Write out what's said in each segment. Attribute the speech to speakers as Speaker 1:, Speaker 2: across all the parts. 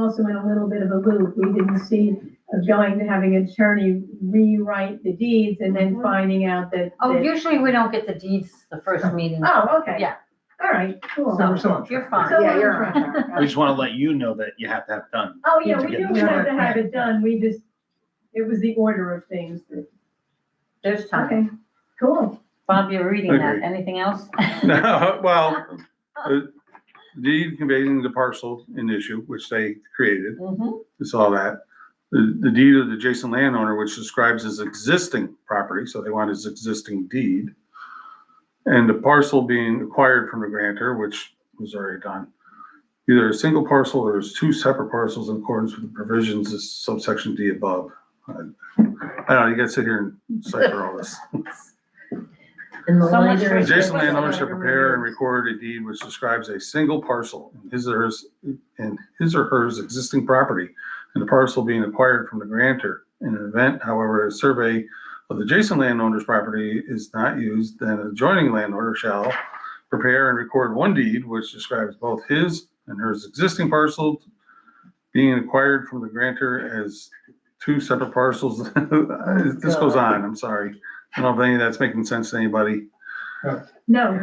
Speaker 1: also in a little bit of a loop. We didn't see of going to having an attorney rewrite the deeds and then finding out that.
Speaker 2: Mm-hmm. Oh,
Speaker 1: that-
Speaker 2: usually we don't get the deeds the first meeting.
Speaker 1: Oh, okay.
Speaker 2: Yeah.
Speaker 1: All right, cool.
Speaker 2: So-
Speaker 3: We're still on
Speaker 2: You're
Speaker 3: track.
Speaker 2: fine.
Speaker 1: Oh, So-
Speaker 4: Yeah, you're on track.
Speaker 5: We just want to let you know that you have to have done.
Speaker 1: Oh, yeah, we
Speaker 5: Yeah.
Speaker 1: knew we had to have it done. We just, it was the order of things. that-
Speaker 2: There's time.
Speaker 1: Okay, cool.
Speaker 2: Bob, you're reading that.
Speaker 6: Agreed.
Speaker 2: Anything else?
Speaker 6: No, well, uh, deed conveying the parcel in issue, which they created,
Speaker 2: Mhm.
Speaker 6: it's all that. The, the deed of the adjacent landowner, which describes his existing property, so they want his existing deed. And the parcel being acquired from the grantor, which was already done. Either a single parcel or as two separate parcels in accordance with the provisions of subsection D above. I I don't know, you gotta sit here and cipher all this.
Speaker 4: And the
Speaker 2: So much
Speaker 4: later-
Speaker 2: for-
Speaker 6: Adjacent landowner shall prepare and record a deed which describes a single parcel in his or hers, in his or hers existing property and the parcel being acquired from the grantor. In an event, however, a survey of the adjacent landowner's property is not used, then adjoining landowner shall prepare and record one deed which describes both his and hers existing parcel being acquired from the grantor as two separate parcels. This goes on, I'm sorry. I don't know if any of that's making sense to anybody.
Speaker 1: No,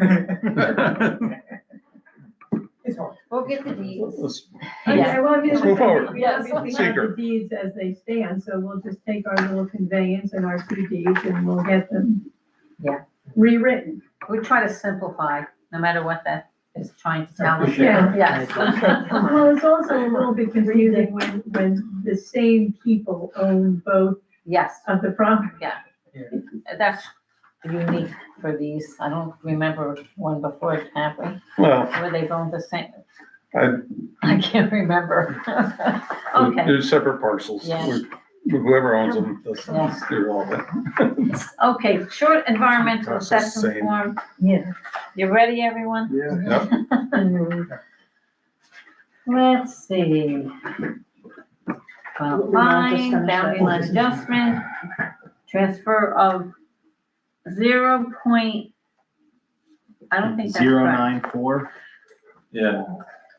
Speaker 3: It's all right.
Speaker 2: We'll get the deeds.
Speaker 6: Let's-
Speaker 1: okay,
Speaker 2: Yeah.
Speaker 1: well, I mean.
Speaker 6: Let's move forward.
Speaker 1: We obviously have the
Speaker 6: Seeker.
Speaker 1: deeds as they stand, so we'll just take our little conveyance and our two deeds and we'll get them.
Speaker 2: Yeah.
Speaker 1: Rewritten.
Speaker 2: We try to simplify, no matter what that is trying to tell us.
Speaker 3: Appreciate
Speaker 1: it.
Speaker 2: Yes.
Speaker 1: Well, it's also a little bit confusing when, when the same people own both
Speaker 2: Yes,
Speaker 1: of the property.
Speaker 2: that's unique for these. I don't remember one before, have we?
Speaker 6: Well,
Speaker 2: Where they owned the same.
Speaker 6: I-
Speaker 2: I can't remember. Okay,
Speaker 6: they're separate parcels.
Speaker 2: Yeah.
Speaker 6: We're- Whoever owns them, does
Speaker 2: Yeah.
Speaker 6: they're all that.
Speaker 2: okay, short environmental
Speaker 6: That's the
Speaker 2: assessment
Speaker 6: same.
Speaker 2: form.
Speaker 4: Yeah.
Speaker 2: You ready, everyone?
Speaker 6: Yep.
Speaker 4: Mhm.
Speaker 2: Let's see. Well,
Speaker 4: We all just
Speaker 2: Fine,
Speaker 4: finished
Speaker 2: boundary
Speaker 4: that.
Speaker 2: line adjustment, transfer of zero point, I don't think that's
Speaker 5: Zero
Speaker 2: correct.
Speaker 5: nine four.
Speaker 7: Yeah,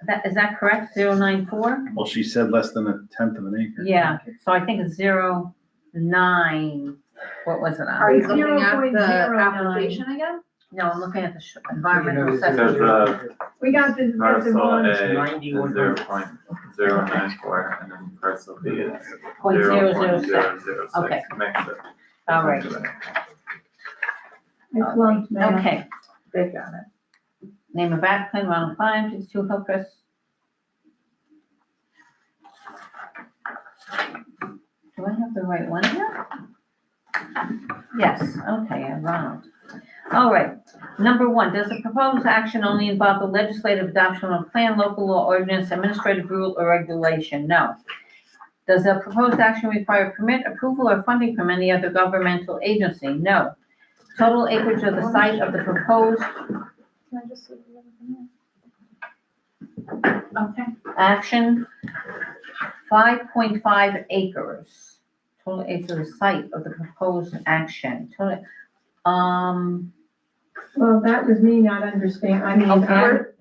Speaker 2: That, is that correct? Zero nine four?
Speaker 5: Well, she said less than a tenth of an acre.
Speaker 2: Yeah, so I think it's zero nine, what was it
Speaker 4: Are
Speaker 2: on?
Speaker 4: you looking at
Speaker 1: 0.09.
Speaker 4: the application again?
Speaker 2: No, I'm looking at the sh- environmental
Speaker 3: You know,
Speaker 7: There's
Speaker 2: assessment.
Speaker 7: a-
Speaker 1: We got this, that's a
Speaker 7: parcel
Speaker 1: long,
Speaker 7: A,
Speaker 3: Ninety-one
Speaker 7: zero
Speaker 3: hundred.
Speaker 7: point zero nine four, and then parcel B is
Speaker 2: Point
Speaker 7: zero
Speaker 2: zero zero
Speaker 7: point
Speaker 2: six,
Speaker 7: zero zero
Speaker 2: Okay.
Speaker 7: six. Next up.
Speaker 2: all right,
Speaker 1: it's long. now.
Speaker 2: okay.
Speaker 4: They got it.
Speaker 2: Name of applicant, Ronald Klein, please to help us. Do I have the right one here? Yes, okay, I Ronald. All right, number one, does the proposed action only involve the legislative adoption of a plan, local law, ordinance, administrative rule, or regulation? No. Does the proposed action require permit approval or funding from any other governmental agency? No. Total acreage of the site of the proposed Okay. Action, five point five acres, total acre site of the proposed action, total, um,
Speaker 1: Well, that was me not understanding, I mean,
Speaker 2: Okay.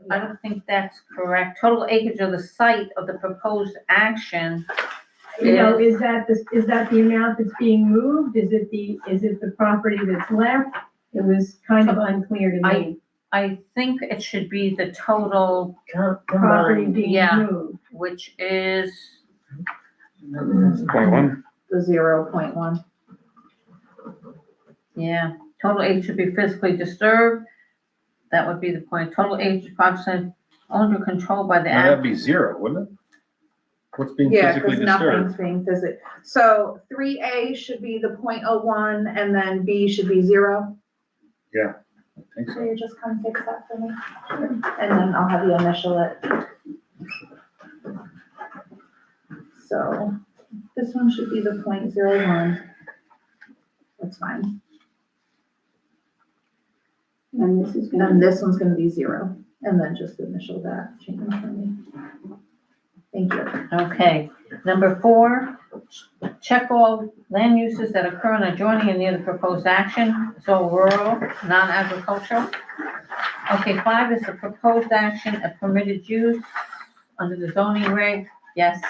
Speaker 1: I,
Speaker 2: I don't think that's correct, total acreage of the site of the proposed action.
Speaker 1: you know,
Speaker 2: is-
Speaker 1: is that, the- is that the amount that's being moved? Is it the, is it the property that's left? It was kind of unclear to
Speaker 2: I-
Speaker 1: me,
Speaker 2: I think it should be the total,
Speaker 3: Com-
Speaker 1: property
Speaker 3: combined.
Speaker 1: being
Speaker 2: Yeah.
Speaker 1: moved.
Speaker 2: which is,
Speaker 5: Mm,
Speaker 6: Point one.
Speaker 4: The zero point one.
Speaker 2: yeah, total acreage should be physically disturbed. That would be the point, total acreage approximately owned or controlled by the.
Speaker 5: Now, that'd
Speaker 2: act-
Speaker 5: be zero, wouldn't it? What's being
Speaker 4: Yeah,
Speaker 5: physically
Speaker 4: because
Speaker 5: disturbed?
Speaker 4: nothing's being physically, so three A should be the point oh one and then B should be zero.
Speaker 5: I think so.
Speaker 4: Will you just come fix that for me? And then I'll have you initial it. So this one should be the point zero one. That's fine.
Speaker 1: And this is
Speaker 4: And this one's gonna be zero, and then just initial that change for me. Thank you.
Speaker 2: Okay, number four, check all land uses that occur in adjoining and near the proposed action, so rural, non-agricultural. Okay, five is the proposed action, a permitted use under the zoning reg, yes.